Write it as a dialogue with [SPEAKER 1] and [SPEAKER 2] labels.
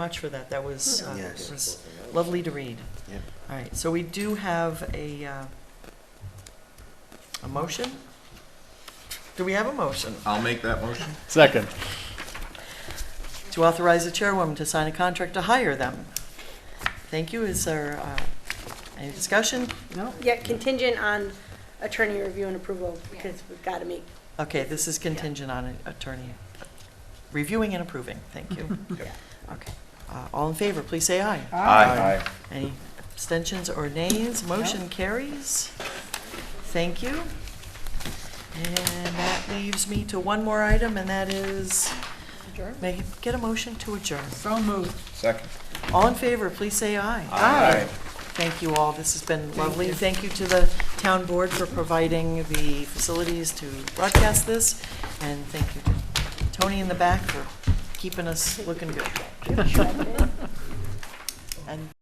[SPEAKER 1] much for that. That was, uh,
[SPEAKER 2] Yes.
[SPEAKER 1] it was lovely to read.
[SPEAKER 2] Yep.
[SPEAKER 1] All right, so we do have a, uh, a motion? Do we have a motion
[SPEAKER 3] I'll make that motion.
[SPEAKER 4] Second.
[SPEAKER 1] to authorize the chairwoman to sign a contract to hire them? Thank you. Is there uh, any discussion? No.
[SPEAKER 5] Yeah, contingent on attorney review and approval, because we've got to meet.
[SPEAKER 1] Okay, this is contingent on attorney reviewing and approving. Thank you. Okay. Uh, All in favor, please say aye.
[SPEAKER 2] Aye.
[SPEAKER 1] Any abstentions or nays? Motion carries. Thank you. And that leaves me to one more item, and that is, may I get a motion to adjourn.
[SPEAKER 6] So moved.
[SPEAKER 2] Second.
[SPEAKER 1] All in favor, please say aye.
[SPEAKER 2] Aye.
[SPEAKER 1] Thank you all, this has been lovely. Thank you to the town board for providing the facilities to broadcast this, and thank you to Tony in the back for keeping us looking good. And